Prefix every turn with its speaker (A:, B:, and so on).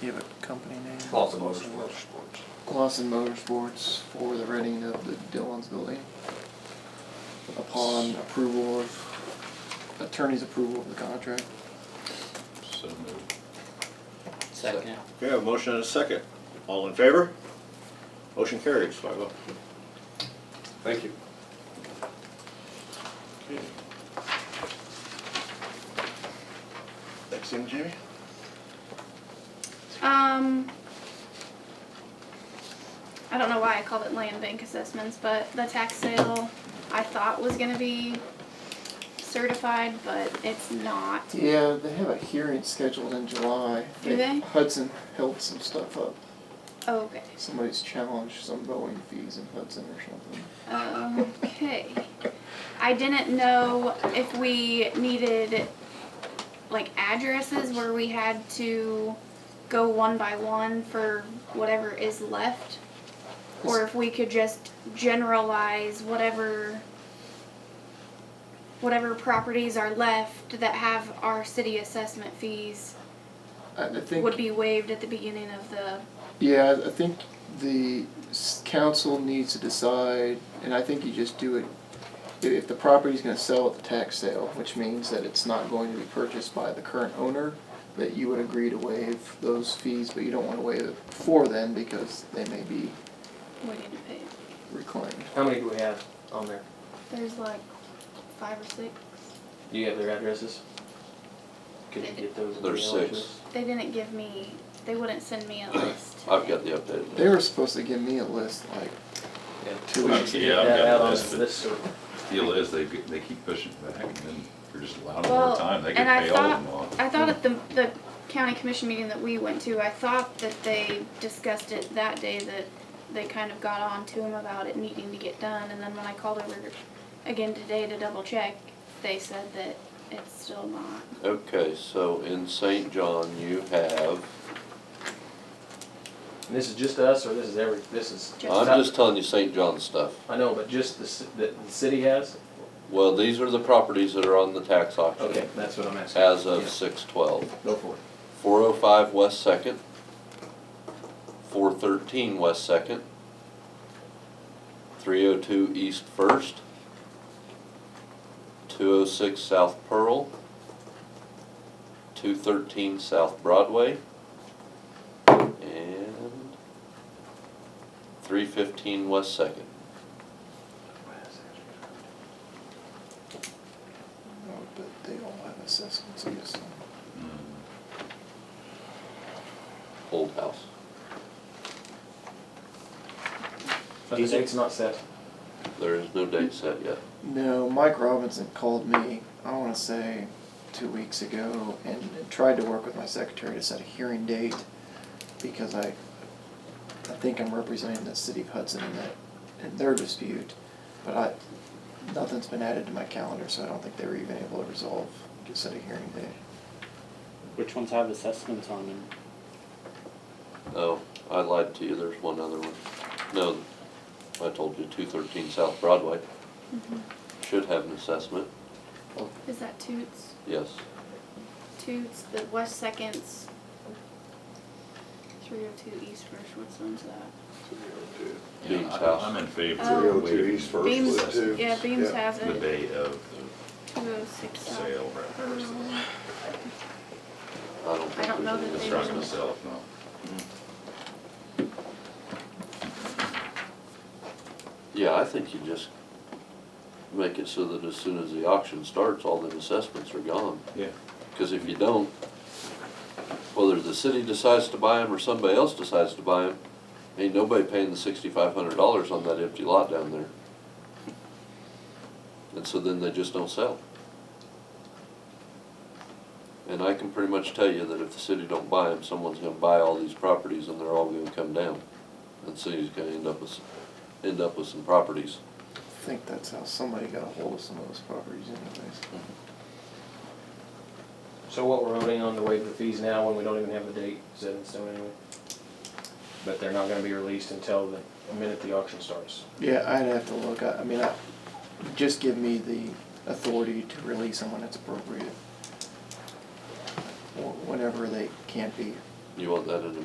A: Do you have a company name?
B: Lawson
C: Motorsports.
A: Glosson Motorsports for the renting of the Dillon's building. Upon approval of, attorney's approval of the contract.
D: So moved.
E: Second.
C: Okay, I have a motion and a second. All in favor? Motion carries five oh.
B: Thank you.
C: Next thing, Jamie?
F: Um, I don't know why I called it land bank assessments, but the tax sale I thought was gonna be certified, but it's not.
A: Yeah, they have a hearing scheduled in July.
F: Do they?
A: Hudson held some stuff up.
F: Okay,
A: Somebody's challenged some mowing fees in Hudson or something.
F: Um, okay. I didn't know if we needed like addresses where we had to go one by one for whatever is left. Or if we could just generalize whatever whatever properties are left that have our city assessment fees
A: I I think.
F: would be waived at the beginning of the
A: Yeah, I think the s- council needs to decide, and I think you just do it, i- if the property's gonna sell at the tax sale, which means that it's not going to be purchased by the current owner, that you would agree to waive those fees, but you don't wanna waive it for them because they may be
F: waiting to pay.
A: reclaimed.
G: How many do we have on there?
F: There's like five or six.
G: Do you have their addresses? Could you get those? in the
D: There's
G: mail to
D: six.
G: us?
F: They didn't give me they wouldn't send me a list.
D: I've got the updated.
A: They were supposed to give me a list like
G: Yeah.
A: two weeks ago.
D: Yeah, I've
G: That
D: got
G: out
D: the
G: on
D: list, but-
G: this, or-
D: Deal is, they, get- they keep pushing it back, and then they're just allowing
F: Well,
D: more time, they could
F: and I
D: pay all of them
F: thought-
D: off.
F: I thought at the, the county commission meeting that we went to, I thought that they discussed it that day, that they kind of got on to him about it needing to get done, and then when I called over again today to double check, they said that it's still not.
H: Okay, so in St. John, you have,
G: and this is just us, or this is every, this is?
F: Just
H: I'm just telling you St. John stuff.
G: I know, but just the, ci- that the city has?
H: Well, these are the properties that are on the tax
G: Okay,
H: auction
G: that's what I'm asking.
H: as of
G: Yeah,
H: six twelve.
G: Go for it.
H: Four oh five West Second, four thirteen West Second, three oh two East First, two oh six South Pearl, two thirteen South Broadway, and three fifteen West Second.
A: But they all have assessments, I guess.
D: Mm.
H: Old House.
G: But the date's not set.
H: There is no date set yet.
A: No, Mike Robinson called me, I want to say, two weeks ago and tried to work with my secretary to set a hearing date because I, I think I'm representing the city of Hudson in that, in their dispute. But I, nothing's been added to my calendar, so I don't think they were even able to resolve, to set a hearing date.
E: Which ones have assessments on them?
H: Oh, I lied to you, there's one other one. No, I told you two thirteen South Broadway. Should have an assessment,
F: Is that Toots?
H: yes.
F: Toots, the West Seconds, three oh two East First, which one's that?
D: Yeah,
H: Dean's
D: I-
H: house.
D: I'm in favor
F: Oh.
D: of waiving first
F: Beams-
D: list,
F: Yeah, Beams has
D: the
F: it,
D: day of
F: two oh six
D: the
F: South.
D: sale, right, first,
F: Um,
H: I don't
F: I don't
H: think there's
F: know that
H: any
F: they
D: it's
F: were
D: trying
H: assessment.
D: to sell it, no.
H: Yeah, I think you just make it so that as soon as the auction starts, all the assessments are gone.
D: Yeah.
H: Cause if you don't, whether the city decides to buy them or somebody else decides to buy them, ain't nobody paying the sixty-five hundred dollars on that empty lot down there. And so then they just don't sell. And I can pretty much tell you that if the city don't buy them, someone's gonna buy all these properties and they're all gonna come down. And the city's gonna end up with, end up with some properties.
A: I think that's how somebody got a hold of some of those properties anyways.
G: So what we're voting on to waive the fees now when we don't even have the date set in stone anyway? But they're not gonna be released until the, the minute the auction starts.
A: Yeah, I'd have to look, I, I mean, I, just give me the authority to release them when it's appropriate. Wh- Whenever they can't be
H: You want that in the